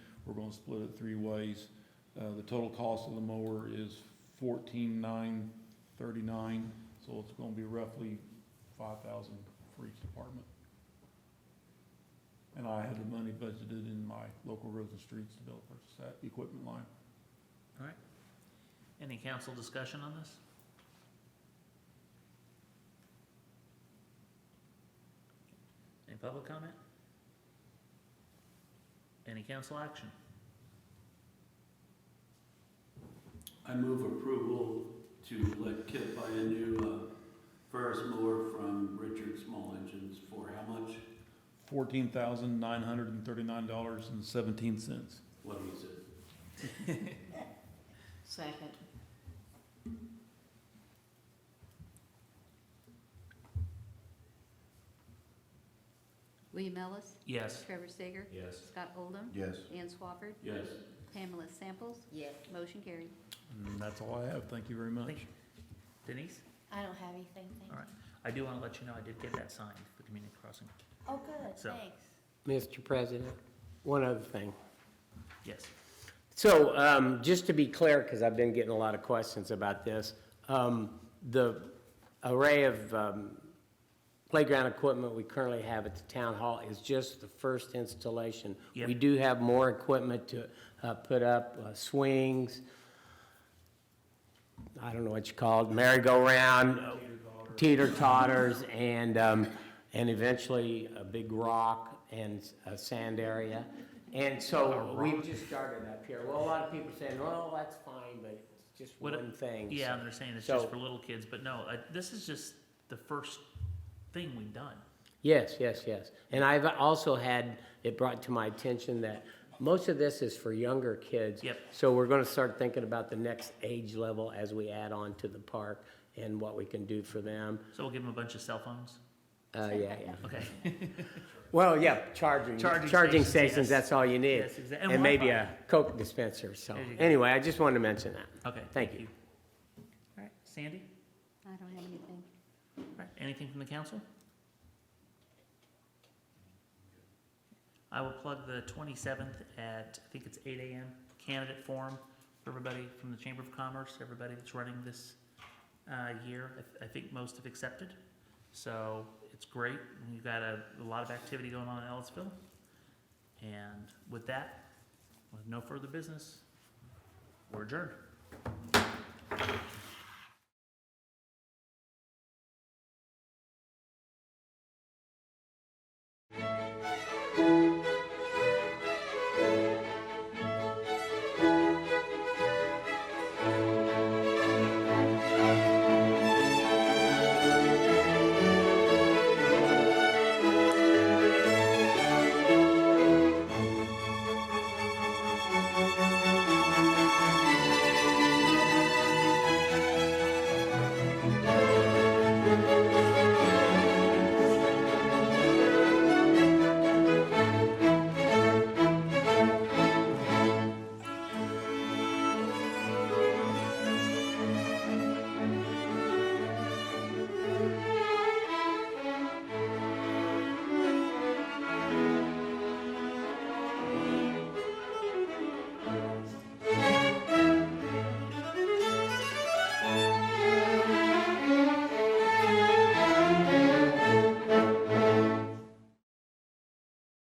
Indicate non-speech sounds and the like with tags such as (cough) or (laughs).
We're gonna split it three ways. Uh, the total cost of the mower is fourteen nine thirty-nine, so it's gonna be roughly five thousand for each department. And I had the money budgeted in my local roads and streets to be able to purchase that equipment line. Any council discussion on this? Any public comment? Any council action? I move approval to let Kip buy a new uh, Ferris mower from Richard Small Engines for how much? Fourteen thousand nine hundred and thirty-nine dollars and seventeen cents. What was it? Second. William Ellis, Yes. Trevor Sager, Yes. Scott Oldham, Yes. Ann Swafford, Yes. Pamela Samples. Yes. Motion carried. And that's all I have. Thank you very much. Thank you. Denise? I don't have anything, thank All you. right. I do want to let you know I did get that signed for community crossing. Oh, good, So- thanks. Mr. President, one other thing. Yes. So, um, just to be clear, because I've been getting a lot of questions about this, um, the array of, um, playground equipment we currently have at the town hall is just the first installation. Yep. We do have more equipment to, uh, put up, uh, swings, I don't know what you call it, merry-go-round, teeter-totters, and, um, and eventually a big rock and a sand area. And so we've just started up here. Well, a lot of people are saying, well, that's fine, but it's just What- one thing. so- Yeah, and they're saying it's just So- for little kids, but no, I- this is just the first thing we've done. Yes, yes, yes. And I've also had it brought to my attention that most of this is for younger kids. Yep. So we're gonna start thinking about the next age level as we add on to the park and what we can do for them. So we'll give them a bunch of cell phones? Uh, yeah, yeah. Okay. Well, yeah, charging, Charging charging stations, yes. stations, that's all you need. Yes, exac- and And maybe a Wi-Fi. Coke dispenser, so, There you go. anyway, I just wanted to mention that. Okay. (laughs) Thank you. All right. Sandy? I don't have anything. Right, Anything from the council? I will plug the 27th at, I think it's 8 AM, candidate forum for everybody from the Chamber of Commerce, everybody that's running this uh, year. I th- I think most have accepted, so it's great. and You've got a a lot of activity going on in Ellisville. And with that, with no further business, we're adjourned.